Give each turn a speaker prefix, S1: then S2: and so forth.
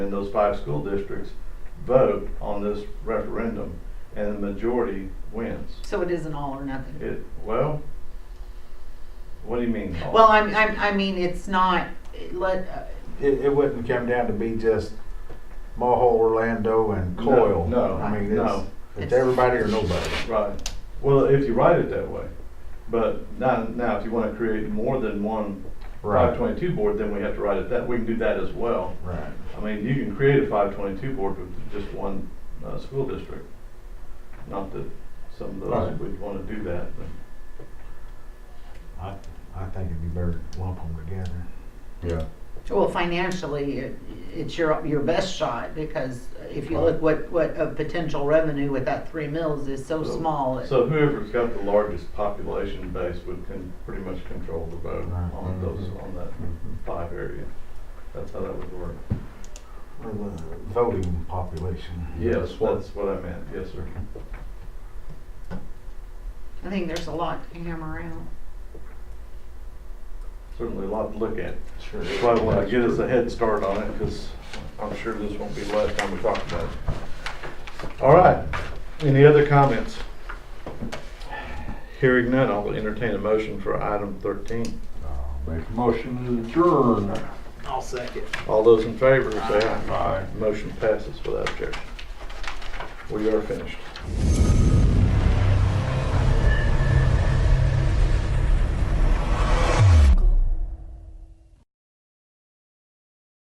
S1: those five school districts vote on this referendum and the majority wins.
S2: So it is an all or nothing.
S1: It, well, what do you mean? all?
S2: Well, I'm, I'm, I mean, it's not, it let, uh,
S3: It, it wouldn't come down to be just Mulhall, Orlando, and
S1: No,
S3: Coyle.
S1: no,
S3: I mean, it's,
S1: no.
S3: it's everybody or nobody.
S1: Right. Well, if you write it that way. But now, now if you want to create more than one
S3: Right.
S1: 522 board, then we have to write it that, we can do that as well.
S3: Right.
S1: I mean, you can create a 522 board with just one uh, school district. Not that some of those
S3: Right.
S1: would want to do that, but.
S3: I, I think it'd be better to lump them together.
S4: Yeah.
S2: well, financially, it, it's your, your best shot, because if you
S3: Right.
S2: look what, what a potential revenue with that three mills is so small. it-
S1: So whoever's got the largest population base would can pretty much control the vote
S3: Right.
S1: on those, on that five area. That's how that would work.
S3: Or the uh, voting population.
S1: Yes, that's what I meant, yes, sir.
S2: I think there's a lot to hammer out.
S1: Certainly a lot to look at.
S3: Sure.
S1: Probably want to get us a head start on it, because I'm sure this won't be the last time we talk about it. All right, any other comments? Hearing none, I'll entertain a motion for item thirteen.
S4: I'll Make a motion to adjourn.
S3: I'll second.
S1: All those in favor, say aye.
S4: Aye.
S1: Motion passes without objection. We are finished.